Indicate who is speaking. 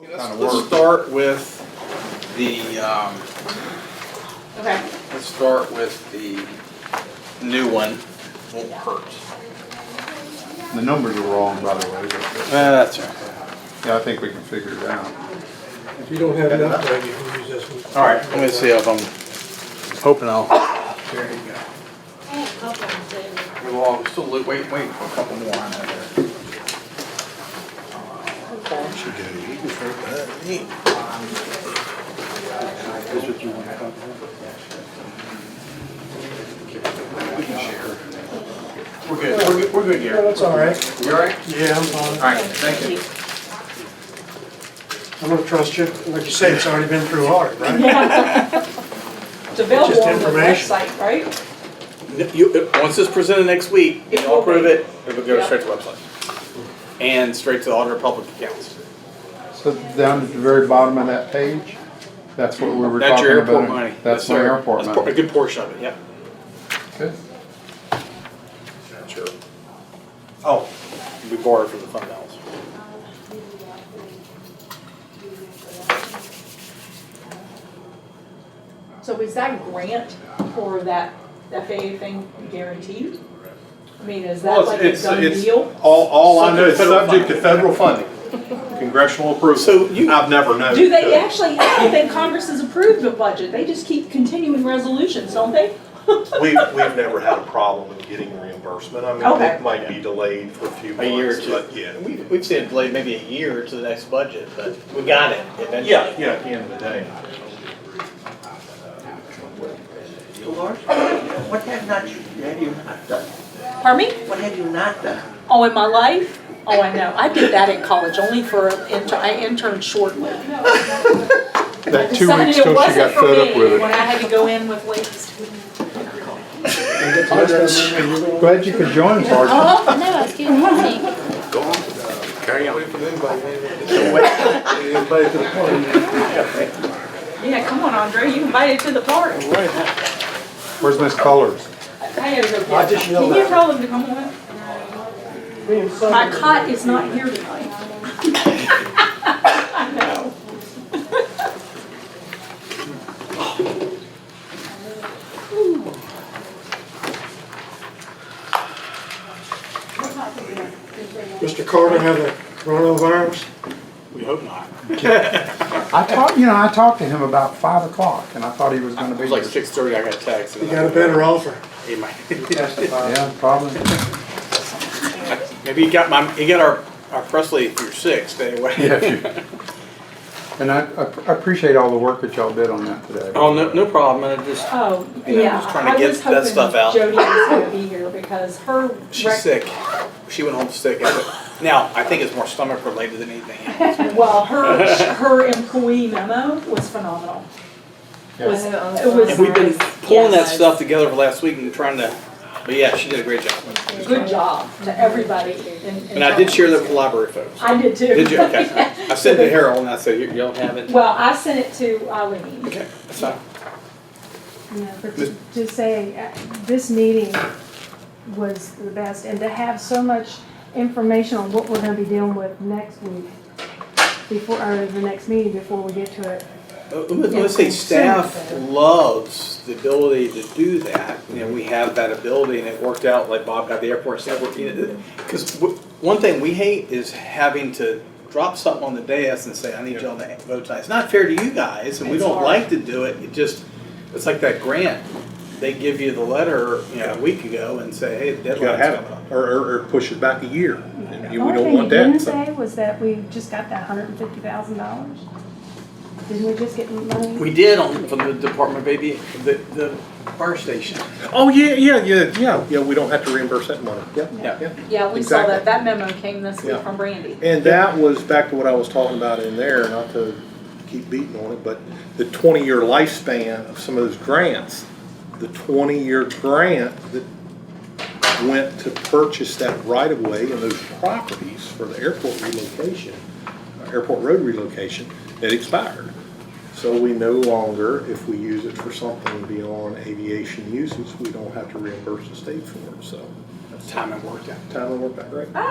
Speaker 1: Let's
Speaker 2: Kinda
Speaker 1: let's
Speaker 2: work.
Speaker 1: start with the, um,
Speaker 3: Okay,
Speaker 1: let's start with the new one, won't hurt.
Speaker 2: The numbers are wrong, by the way, but,
Speaker 1: Uh, That's right.
Speaker 2: yeah, I think we can figure it out.
Speaker 4: If you don't have enough, then you can use this one.
Speaker 1: All right, let me see if I'm hoping I'll. There you go. We're all still wait, wait, wait for a couple more on that there. We can share. We're good, we're good, we're good
Speaker 4: Yeah,
Speaker 1: here.
Speaker 4: that's all right.
Speaker 1: You all right?
Speaker 4: Yeah, I'm
Speaker 1: All
Speaker 4: fine.
Speaker 1: right, thank you.
Speaker 4: I'm gonna trust you. Like you say, it's already been through audit, right?
Speaker 3: It's available
Speaker 4: Just
Speaker 3: on the
Speaker 4: information.
Speaker 3: website, right?
Speaker 1: N- You, uh, once it's presented next week, and
Speaker 3: It
Speaker 1: y'all
Speaker 3: will be.
Speaker 1: approve it, it will go
Speaker 3: Yep.
Speaker 1: straight to the website. And straight to the Auditor of Public Accounts.
Speaker 2: So down at the very bottom of that page, that's what we were
Speaker 1: That's your
Speaker 2: talking about.
Speaker 1: airport money.
Speaker 2: That's my
Speaker 1: sir.
Speaker 2: airport
Speaker 1: That's por- A
Speaker 2: money.
Speaker 1: good portion of it, yeah.
Speaker 2: Okay.
Speaker 1: Sure. Oh, we borrowed from the fund balance.
Speaker 3: So is that grant for that FAA thing guaranteed? I mean, is that
Speaker 5: Well,
Speaker 3: like a
Speaker 5: it's,
Speaker 3: done
Speaker 5: it's, it's,
Speaker 3: deal?
Speaker 5: all, all I know,
Speaker 1: Subject
Speaker 5: it's
Speaker 1: to federal
Speaker 5: subject to federal funding, congressional approval.
Speaker 1: So you-
Speaker 5: I've never known.
Speaker 3: Do they actually, I don't think Congress has approved the budget, they just keep continuing resolutions, don't they?
Speaker 5: We've, we've never had a problem in getting reimbursement. I mean,
Speaker 3: Okay.
Speaker 5: it might be delayed for a few
Speaker 1: A year or
Speaker 5: months,
Speaker 1: two.
Speaker 5: but yeah.
Speaker 1: We- We've seen it delayed maybe a year to the next budget, but we got it eventually.
Speaker 5: Yeah, yeah, at the end of the day.
Speaker 6: Lord, what have not you, have you not done?
Speaker 3: Pardon me?
Speaker 6: What have you not done?
Speaker 3: Oh, in my life? Oh, I know, I did that in college, only for, an inter- I interned shortly. I
Speaker 2: That two
Speaker 3: decided
Speaker 2: weeks
Speaker 3: it
Speaker 2: till she
Speaker 3: wasn't
Speaker 2: got
Speaker 3: for
Speaker 2: fed up
Speaker 3: me
Speaker 2: with
Speaker 3: When
Speaker 2: it.
Speaker 3: I had to go in with ladies.
Speaker 2: Glad you could join, Sergeant.
Speaker 7: Oh, no, excuse me.
Speaker 3: Yeah, come on, Andre, you invited to the party.
Speaker 2: Where's Miss Colors?
Speaker 3: I gotta go get him. Can you tell him to come on? My cot is not here tonight. I know.
Speaker 4: Mr. Carter have the coronavirus?
Speaker 1: We hope not.
Speaker 3: Oh.
Speaker 2: I talked, you know, I talked to him about five o'clock and I thought he was gonna
Speaker 1: It
Speaker 2: be.
Speaker 1: was like six thirty, I got a text. and
Speaker 4: You
Speaker 1: then
Speaker 4: got a better offer.
Speaker 1: He might,
Speaker 2: Yeah, probably.
Speaker 1: maybe he got my, he got our, our press lead through six anyway.
Speaker 2: Yeah, if you- And I, I appreciate all the work that y'all did on that today.
Speaker 1: Oh, no, no problem, and I just,
Speaker 3: Oh,
Speaker 1: You know,
Speaker 3: yeah.
Speaker 1: just trying to get that
Speaker 3: I was
Speaker 1: stuff out.
Speaker 3: hoping Jody was gonna be here because her.
Speaker 1: she's
Speaker 3: rec-
Speaker 1: sick. She went home sick. Now, I think it's more stomach related than anything else.
Speaker 3: Well, her, her employee memo was phenomenal.
Speaker 2: Yeah.
Speaker 3: Was- It was.
Speaker 1: And we've been pulling that
Speaker 3: Yes.
Speaker 1: stuff together for last week and trying to, but yeah, she did a great job.
Speaker 3: Good job to everybody in. in
Speaker 1: And I did
Speaker 3: town.
Speaker 1: share that with the library folks.
Speaker 3: I did too.
Speaker 1: Did you? Okay. I sent it to Harold and I said, "You- y'all have it.
Speaker 3: Well, I sent it to Eileen.
Speaker 1: Okay, that's fine.
Speaker 8: Yeah, but ju- just saying, uh, this meeting was the best, and to have so much information on what we're gonna be dealing with next week, before, or the next meeting, before we get to it.
Speaker 1: Uh, Let me let's say staff loves the ability to do that, and we have that ability, and it worked out, like Bob got the airport staff working. Because one thing we hate is having to drop something on the dais and say, I need y'all to vote tonight. It's not fair to you guys, and we
Speaker 3: It's
Speaker 1: don't
Speaker 3: hard.
Speaker 1: like to do it, it just, it's like that grant. They give you the letter, you know, a week ago and say, hey, the
Speaker 5: You gotta
Speaker 1: deadline's
Speaker 5: have
Speaker 1: coming up.
Speaker 5: it, or, or, or push it back a year. And you- we
Speaker 8: Only
Speaker 5: don't
Speaker 8: thing
Speaker 5: want
Speaker 8: you didn't
Speaker 5: that, so.
Speaker 8: say was that we just got that hundred and fifty thousand dollars? Didn't we just get money?
Speaker 1: We did on, from the Department of AV, the, the fire station.
Speaker 5: Oh, yeah, yeah, yeah, yeah, yeah, we don't have to reimburse that money, yeah.
Speaker 1: Yeah.
Speaker 3: Yeah, we saw that,
Speaker 5: Exactly.
Speaker 3: that memo came this week
Speaker 5: Yeah.
Speaker 3: from Brandy.
Speaker 5: And that was back to what I was talking about in there, not to keep beating on it, but the twenty-year lifespan of some of those grants. The twenty-year grant that went to purchase that right-of-way and those properties for the airport relocation, uh, airport road relocation, it expired. So we no longer, if we use it for something beyond aviation uses, we don't have to reimburse the state for it, so.
Speaker 1: That's time I worked out.
Speaker 5: Tyler, work that right?